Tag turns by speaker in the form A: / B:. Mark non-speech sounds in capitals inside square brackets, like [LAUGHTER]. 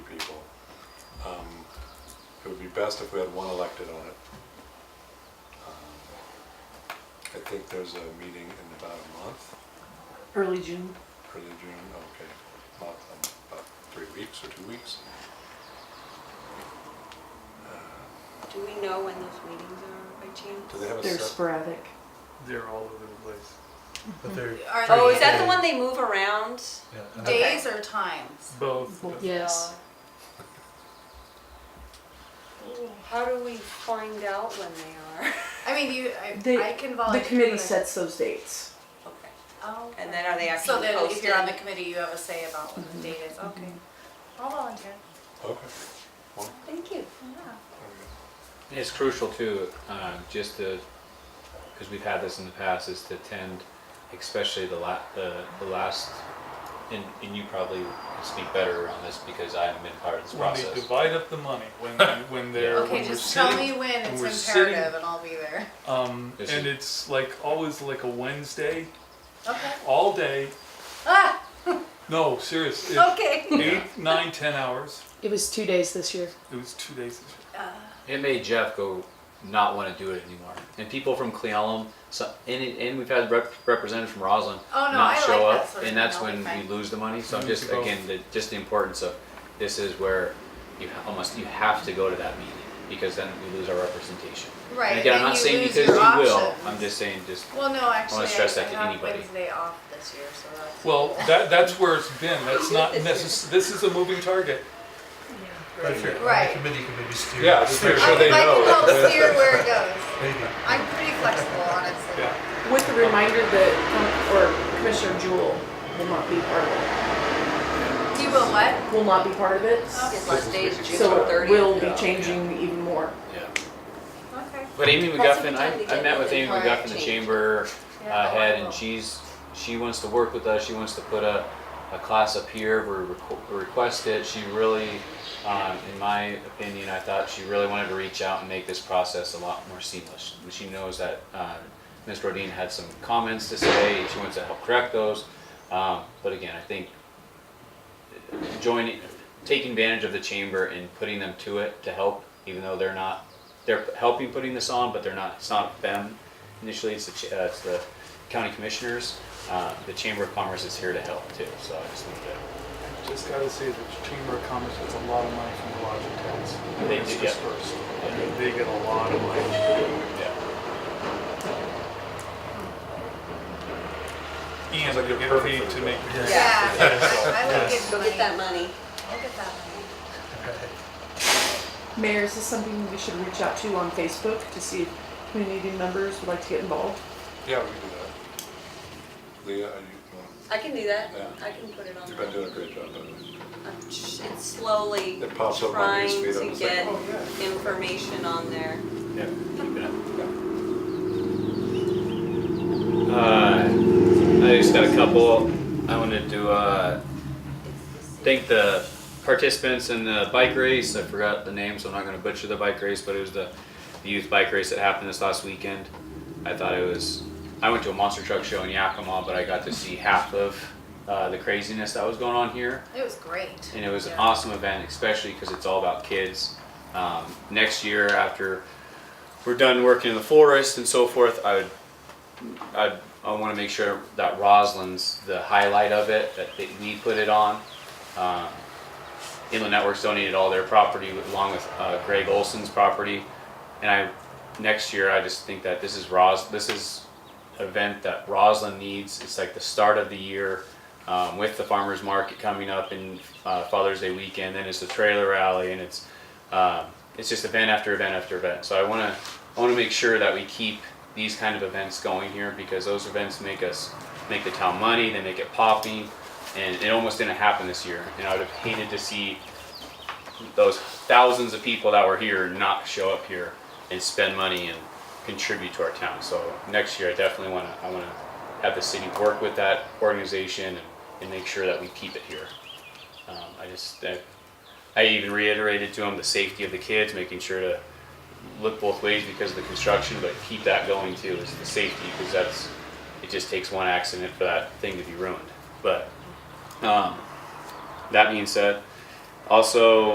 A: Um, would be best if we had one elected on it. Um, I think there's a meeting in about a month,
B: early June.
A: early June, okay, about, um, about three weeks or two weeks.
C: Do we know when those meetings are by
A: Do they
C: chance?
A: have a
B: They're
A: set?
B: sporadic.
D: They're all over the place. But they're
E: Are
C: Oh,
E: they
C: is that the one they move around?
D: yeah, and
C: Date?
E: days or times?
D: both.
B: Well, Yes.
C: How do we find out when they [LAUGHS] are?
E: I mean, you, I,
B: They-
E: I can
B: The
E: volunteer.
B: committee
E: but-
B: sets those dates.
C: Okay.
E: Oh.
C: And then are they
E: So
C: actually
E: then if you're on the
C: posted?
E: committee, you have a say about when the date is, okay.
B: Mm-hmm.
E: I'll volunteer.
A: Okay. Well,
C: Thank you.
E: Yeah.
A: there we go.
F: And It's crucial too, um, just to, because we've had this in the past, is to attend, especially the la, the, the last, and, and you probably can speak better on this because I haven't been part of this
D: When they
F: process.
D: divide up the money, when, when they're,
E: Okay,
D: when we're
E: just tell me
D: sitting,
E: when
D: when
E: it's
D: we're sitting-
E: imperative and I'll be there.
D: um,
F: This
D: and
F: is-
D: it's like always like a Wednesday,
E: Okay.
D: all day.
E: Ah,
D: [LAUGHS] No, seriously,
E: okay.
D: eight, nine, ten hours.
B: It was two days this year.
D: It was two days.
E: Uh,
F: It made Jeff go not want to do it anymore. And people from Clealum, so, and, it- and we've had rep- representatives from Roslyn
E: Oh, no, I
F: not
E: like
F: show
E: that sort
F: up,
E: of
F: and
E: thing.
F: that's
E: I'll be
F: when we
E: fine.
F: lose the money. So I'm
D: Mm,
F: just,
D: both.
F: again, the, just the importance of, this is where you ha- almost, you have to go to that meeting because then we lose our representation.
E: Right.
F: And again, I'm
E: and
F: not
E: you
F: saying
E: lose
F: because you
E: your
F: will,
E: options.
F: I'm just saying just
E: Well, no, actually, I
F: stress
E: I
F: that to
E: have
F: anybody.
E: Wednesday off this year, so that's.
D: Well, that, that's where it's been. That's not necess, this is a moving target.
G: But if you're on
E: Right.
G: the committee, you can maybe steer.
A: Yeah, just make
E: I
A: sure
E: can,
A: they
E: I can help
A: know.
F: [LAUGHS]
E: steer where it goes.
G: Maybe.
E: I'm pretty flexible, honestly.
D: Yeah.
B: With the reminder that, um, or Commissioner Jewel will not be part of
E: You will what?
B: it. Will not be part of it.
E: Oh,
C: His last day is June
B: So it will
C: thirtieth.
B: be
F: Yeah,
B: changing even more.
F: Yeah,
E: Okay.
F: but Amy
C: That's a good
F: McGuffin,
C: time
F: I,
C: to
F: I
C: get
F: met with
C: the
F: Amy
C: climate
F: McGuffin, the
C: change.
F: chamber
E: Yeah,
F: uh, head,
E: I will.
F: and she's, she wants to work with us, she wants to put a, a class up here, we requ- request it, she really, um, in my opinion, I thought she really wanted to reach out and make this process a lot more seamless. And She knows that, uh, Ms. Rodine had some comments to say, she wants to help correct those, um, but again, I think joining, taking advantage of the chamber and putting them to it to help, even though they're not, they're helping putting this on, but they're not, it's not them initially, it's the, ch- uh, it's the county commissioners. Uh, the Chamber of Commerce is here to help too, so I just wanted to,
D: Just gotta say, the Chamber of Commerce gets a lot of money from the lodging tax.
F: They
D: It's
F: do, yeah.
D: dispersed. They get a lot of money.
F: yeah.
D: And
A: like
D: they
A: you're
D: get
A: perfect for
D: paid
A: the
D: to
A: job.
D: make the
E: Yeah, I, I like
G: Yes.
E: getting
C: Go
E: money.
C: get that money.
E: I'll get that money.
B: Mayor, is this something we should reach out to on Facebook to see if community members would like to get involved?
A: Yeah, we can do that. Leah, are you, well,
C: I can do that.
A: Yeah.
C: I can put it on.
A: you've been
C: there.
A: doing a great job, by the way.
C: I'm sh- It's slowly
A: It pops up on
C: trying
A: your feed, I'm
C: to
A: just like,
C: get
A: oh, yeah.
C: information on there.
F: Yeah, keep it up. Uh, I just got a couple, I wanted to, uh, thank the participants in the bike race. I forgot the name, so I'm not going to butcher the bike race, but it was the, the youth bike race that happened this last weekend. I thought it was. I went to a monster truck show in Yakima, but I got to see half of uh, the craziness that was going on here,
E: It was great.
F: and it was an
E: Yeah.
F: awesome event, especially because it's all about kids. Um, next year, after we're done working in the forest and so forth, I would I, I want to make sure that Roslyn's the highlight of it, that they, we put it on. Um, Inland Networks donated all their property along with uh, Greg Olson's property. And I, next year, I just think that this is Ros, this is an event that Roslyn needs. It's like the start of the year um, with the farmer's market coming up and uh, Father's Day weekend, then it's the trailer rally and it's, um, it's just event after event after event. So I want to, I want to make sure that we keep these kind of events going here because those events make us, make the town money, they make it popping. And it almost didn't happen this year. And I would have hated to see those thousands of people that were here not show up here and spend money and contribute to our town. So next year, I definitely want to, I want to have the city work with that organization and, and make sure that we keep it here. Um, I just, I, I even reiterated to them the safety of the kids, making sure to look both ways because of the construction, but keep that going too, is the safety, because that's, it just takes one accident for that thing to be ruined. But, um, that being said, also,